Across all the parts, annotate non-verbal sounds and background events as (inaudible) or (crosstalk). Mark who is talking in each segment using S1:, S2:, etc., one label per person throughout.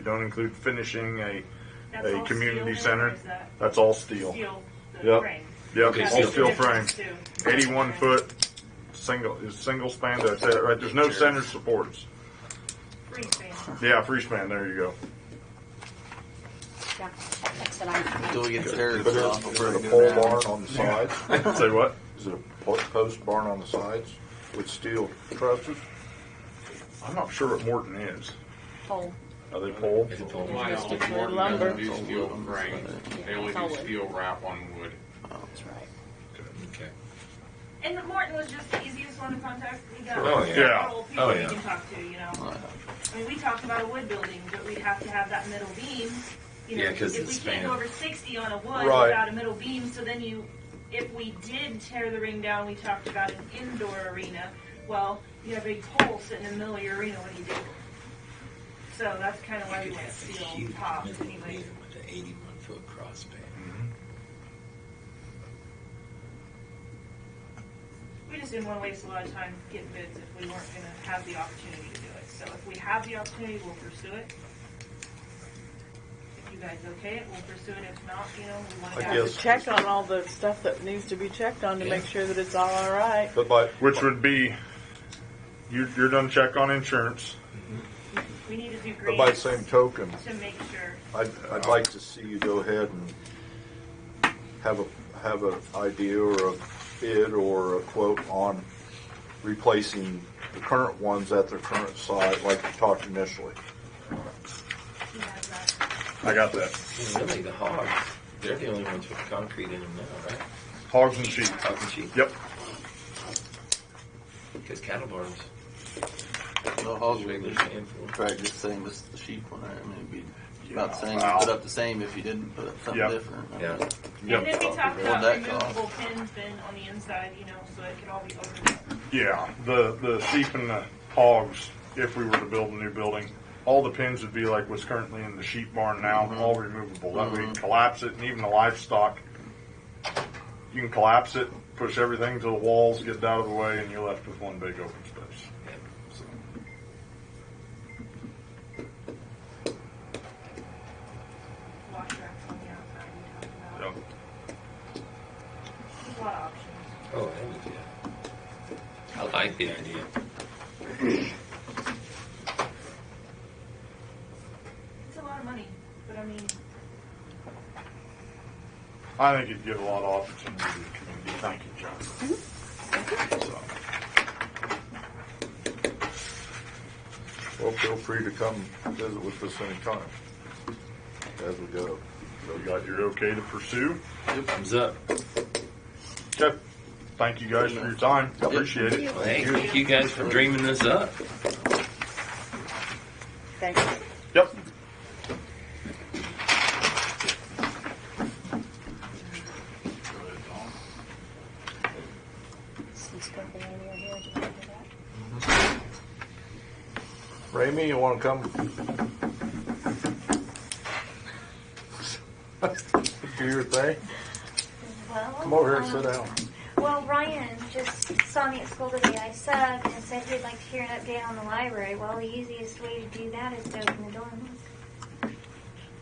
S1: You don't include finishing a,
S2: That's
S1: a
S2: all
S1: community
S2: steel there, or
S1: center.
S2: is that
S1: That's all steel.
S2: Steel, the
S1: Yep.
S2: frame.
S1: Yep,
S3: Okay,
S2: That's
S1: all
S2: the
S1: steel frame.
S2: difference, too.
S1: Eighty-one foot, single, is single span, that's it, right? There's no center supports.
S2: Free span.
S1: Yeah, free span, there you go.
S4: Yeah, that's what I,
S3: Until we get there.
S5: But
S3: John.
S5: is is it a pole barn on the sides?
S1: (laughs) Say what?
S5: Is it a po- post barn on the sides with steel trusses?
S1: I'm not sure what Morton is.
S4: pole.
S1: Are they pole?
S6: Why
S4: Just
S6: only
S4: stick to
S6: Morton
S4: lumber.
S6: doesn't do steel frame, they only
S4: It's all
S6: do
S4: wood.
S6: steel wrap on wood.
S4: That's right.
S2: And Morton was just the easiest one to contact. We got
S3: Oh, yeah.
S2: several people
S3: Oh,
S2: we
S3: yeah.
S2: can talk to, you know.
S3: Right.
S2: I mean, we talked about a wood building, but we'd have to have that middle beam. You know,
S3: Yeah, 'cause
S2: if
S3: it's
S2: we can't
S3: span.
S2: go over sixty on a wood
S5: Right.
S2: without a middle beam, so then you, if we did tear the ring down, we talked about an indoor arena. Well, you have a big pole sitting in the middle of your arena when you do. it. So that's kind of why we
S7: You'd
S2: went
S7: have a
S2: steel
S7: huge
S2: tops
S7: middle
S2: anyway.
S7: ear With an eighty-one foot crossbar.
S2: We just didn't want to waste a lot of time getting bids if we weren't going to have the opportunity to do it. So if we have the opportunity, we'll pursue it. If you guys okay it, we'll pursue it. If not, you know, we want to.
S5: I guess,
S8: check on all the stuff that needs to be checked on to make sure that it's all all right.
S5: but like,
S1: Which would be, you, you're done check on insurance.
S2: We need to do
S5: but
S2: green
S5: by the same token,
S2: to make sure.
S5: I'd, I'd like to see you go ahead and have a, have an idea or a bid or a quote on replacing the current ones at their current site, like you talked initially.
S2: he has that.
S1: I got that.
S7: And really, the hogs, they're the only ones with concrete in them now, right?
S1: Hogs and sheep.
S7: Talking sheep,
S1: Yep.
S7: because cattle barns,
S3: The hogs would
S7: regular
S3: be
S7: sand floor.
S3: Drag the same as the sheep one. I mean, it'd be about the same.
S1: Wow.
S3: You put up the same if you didn't put up something
S1: Yeah.
S3: different. I mean,
S7: Yeah.
S2: And then we talked
S3: What'd
S2: about
S3: that cost?
S2: removable pins then on the inside, you know, so it could all be opened up.
S1: Yeah, the, the sheep and the hogs, if we were to build a new building, all the pins would be like what's currently in the sheep barn now, all removable. That way you can collapse it and even the livestock, you can collapse it, push everything to the walls, get it out of the way, and you're left with one big open space. So,
S2: Wash racks on the outside, we talked
S1: yep.
S2: about. There's a lot of options.
S7: Oh, I would, yeah. I like the idea.
S2: It's a lot of money, but I mean,
S1: I think it'd give a lot of opportunity to the community. Thank you, John. So,
S5: Well, feel free to come visit with us anytime as we go.
S1: so you got your okay to pursue?
S3: Thumbs up.
S1: Okay. Thank you guys for your time. I Appreciate it.
S7: Well, hey, thank you guys for dreaming this up.
S4: Thanks.
S1: Yep.
S4: Some stuff in your hair, do you remember that?
S5: Ramey, you want to come? (laughs) Do your thing?
S9: Well,
S5: Come over here and sit
S9: um,
S5: down.
S9: Well, Ryan just saw me at school today. I subbed and said he'd like to hear an update on the library. Well, the easiest way to do that is to open the door and look.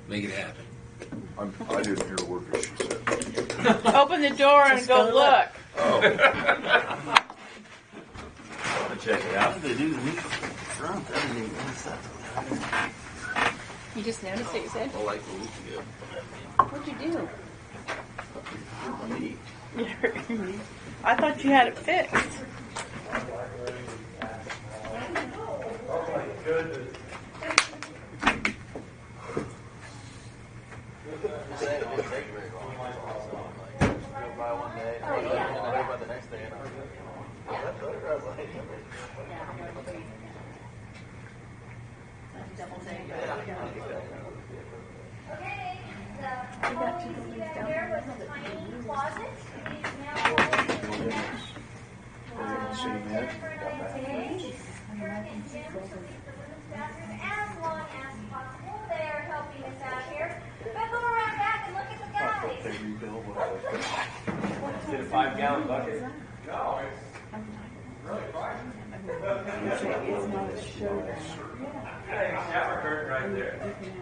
S7: Make it happen.
S5: I'm, I didn't hear a word that she said.
S8: Open the door and go look.
S7: I'll check it
S3: How
S7: out.
S3: do they do the meat? Front, that'd be nice.
S4: You just noticed it, you said?
S3: Well, like a week ago.
S4: What'd you do?
S3: My meat.
S8: (laughs) I thought you had it fixed.
S3: It didn't take very long. Go by one day, and then go by the next day. and That photograph, I hate it.
S9: Okay, the hallway you see down there was a tiny closet. It's now all in that. Uh, Jennifer and I today, Kurt and Jim to leave the women's bathroom as long as possible. They are helping us out here. But go around back and look at the guys.
S4: It's not a show.
S7: Hey, shower curtain right there.